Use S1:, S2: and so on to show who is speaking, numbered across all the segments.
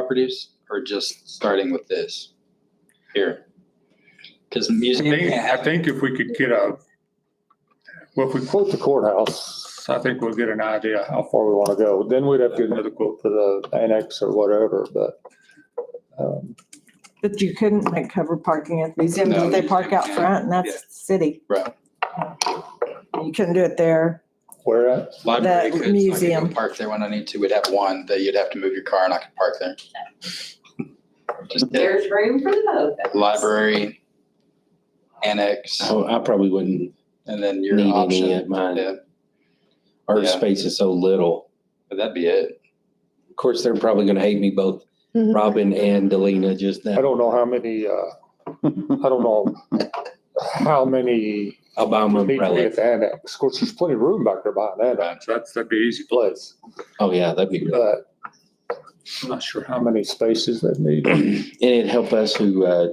S1: properties or just starting with this here? Because
S2: I
S1: museum
S2: think,
S1: can't
S2: I
S1: have,
S2: think if we could get a, well, if we quote,
S3: Quote the courthouse,
S2: I think we'll get an idea how
S3: how far we want to go. Then we'd have to get another
S2: another quote.
S3: for the annex or whatever, but. um,
S4: But you couldn't like cover parking at the museum,
S1: No,
S4: because they
S1: you
S4: park out
S1: can't.
S4: front and
S1: Yeah.
S4: that's city.
S1: Right.
S4: You couldn't do it there.
S3: Where at?
S1: library
S4: the
S1: could, so I could go
S4: museum.
S1: park there when I need to. We'd have one that you'd have to move your car and I could park there. Just kidding.
S5: There's room for both.
S1: library, annex,
S6: So I probably wouldn't
S1: and then your
S6: need any Oh, at
S1: option.
S6: mine.
S1: Yeah,
S6: Our
S1: Yeah.
S6: space is so little.
S1: but that'd be it.
S6: Of course, they're probably gonna hate me both, Robin and Delina, just
S3: I
S6: now.
S3: don't know how many, uh, I don't know how many
S6: Obama
S3: need to be
S6: umbrella.
S3: at the annex. Of course, there's plenty of room back there behind that
S1: Right.
S2: So that's, that'd be easy.
S3: place,
S6: Oh, yeah, that'd be great.
S3: but
S2: I'm not sure
S3: how
S2: how much.
S3: many spaces they need.
S6: And it'd help us who, uh,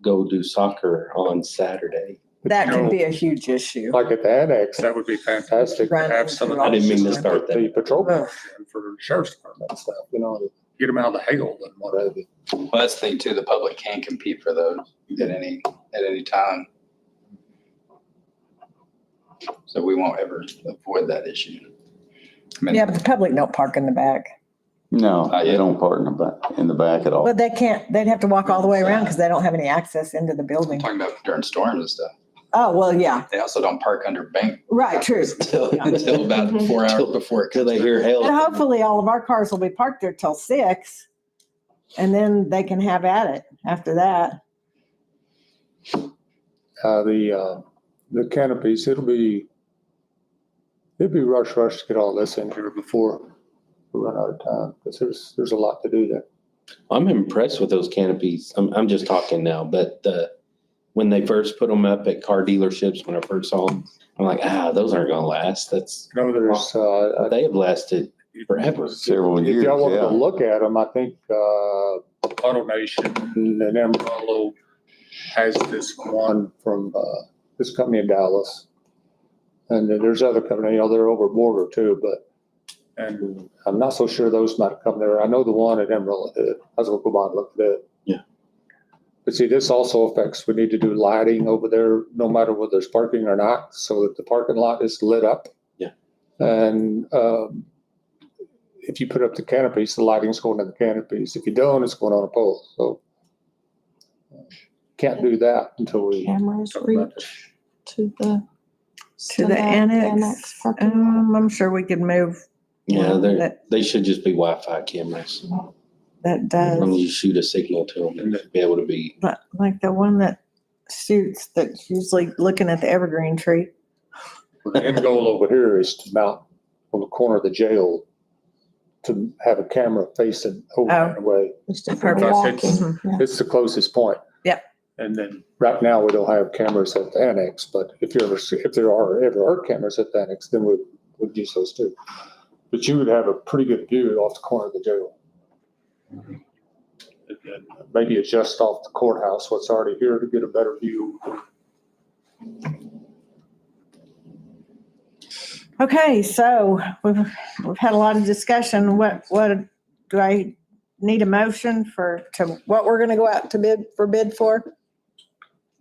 S6: go do soccer on Saturday.
S4: That
S2: No.
S4: could be a huge issue.
S3: Like at the annex,
S2: That would be fantastic.
S3: fantastic.
S4: Right.
S2: Have some of
S4: I
S6: didn't mean to
S2: those
S6: start that. Oh.
S3: The patrol
S4: Ugh.
S2: For the sheriff's department,
S3: and stuff, you know,
S2: get them out of the hail and whatever.
S3: whatever.
S1: Well, that's the thing too, the public can compete for those at any, at any time. So we won't ever avoid that issue. I mean,
S4: Yeah, but the public don't park in the back.
S7: No,
S1: Not
S7: they
S1: yet.
S7: don't park in the back, in the back at all.
S4: Well, they can't, they'd have to walk all the way around because they don't have any access into the
S1: I'm
S4: building.
S1: Talking about during storms and stuff.
S4: Oh, well, yeah,
S1: They also don't park under bank
S4: right, true.
S6: Till
S1: until about four hours before it
S6: till
S1: comes.
S6: they hear hell.
S4: But hopefully all of our cars will be parked there till six. And then they can have at it after that.
S3: Uh, the, uh, the canopies, it'll be, it'd be rush, rush to get all this in here before we run out of time, because there's, there's a lot to do there.
S6: I'm impressed with those canopies. I'm, I'm just talking now, but the, when they first put them up at car dealerships, when I first saw them, I'm like, ah, those aren't gonna last. That's,
S3: No, there's, uh,
S6: they have lasted forever.
S7: Several
S3: if
S7: years,
S3: y'all wanted to
S7: yeah.
S3: look at them, I think, uh,
S2: Auto Nation,
S3: and then
S2: Marlowe has this one.
S3: one from, uh, this company in Dallas. And then there's other company, you know, they're over border too, but
S2: And
S3: I'm not so sure those might come there. I know the one at Emerald, uh, did. I was gonna go by and look at it.
S6: Yeah.
S3: But see, this also affects, we need to do lighting over there, no matter whether there's parking or not, so that the parking lot is lit up.
S6: Yeah.
S3: And, um, if you put up the canopies, the lighting's going in the canopies. If you don't, it's going on a pole, so. Can't do that until we.
S8: cameras
S2: talk
S8: reach
S2: about this.
S8: to the.
S4: To the annex,
S8: parking lot.
S4: um, I'm sure we could move
S6: Yeah, they
S4: That-
S6: they should just be Wi-Fi cameras.
S4: that
S6: As long as
S4: does,
S6: you shoot a signal to them, they should be able to be.
S4: but like the one that shoots that's usually looking at the evergreen tree.
S2: The end goal over
S3: over here is to mount on the corner of the jail to have a camera facing over
S4: Oh.
S3: that way.
S8: Just
S4: Perfect.
S8: different walking.
S4: Mhm.
S3: It's the closest point.
S2: and then
S3: Right now, we don't have cameras at the annex, but if you ever, see- if there are, ever are cameras at the annex, then we would use those too. But you would have a pretty good view off the corner of the jail. And then Maybe adjust off the courthouse, what's already here to get a better view.
S4: Okay, so we've, we've had a lot of discussion. What, what, do I need a motion for, to what we're gonna go out to bid, for bid for?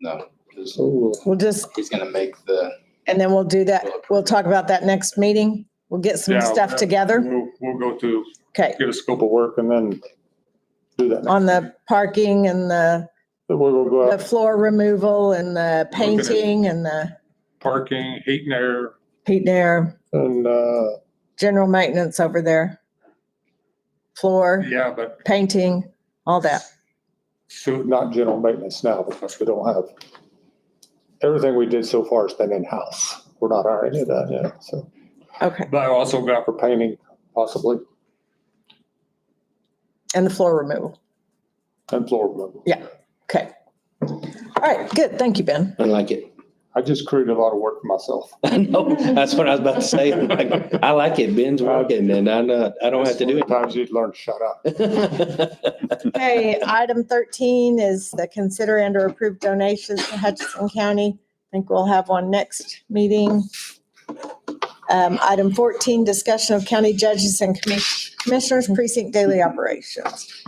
S1: No, 'cause
S3: So uh,
S4: We'll just,
S1: he's gonna make the,
S4: and then we'll do that, we'll talk about that next meeting. We'll get some
S2: Yeah,
S4: stuff
S2: yeah.
S4: together.
S2: we'll, we'll go through,
S4: Okay,
S2: get a
S3: scope
S2: scope
S3: of work and then do that.
S4: on the parking and the,
S3: But we will go
S4: the
S3: out,
S4: floor removal and the painting and the
S2: of parking, heat and air,
S4: heat and air,
S3: and, uh,
S4: general maintenance over there. Floor,
S2: yeah, but
S4: painting, all that.
S2: So,
S3: not general maintenance now because we don't have, everything we did so far has been in-house. We're not hiring it out yet, so
S4: Okay,
S2: but I also got,
S3: for painting possibly
S4: and the floor removal.
S3: and floor removal.
S4: Okay. All right, good. Thank you, Ben.
S6: I like it.
S3: I just created a lot of work for myself.
S6: I know, that's what I was about to say. I'm like, I like it. Ben's working and I'm not, I don't have to do
S3: Sometimes you'd learn to shut up.
S6: it.
S4: Okay, item thirteen is the consider and or approve donations to Hutchinson County. I think we'll have one next meeting. Um, item fourteen, discussion of county judges and commis- commissioners precinct daily operations.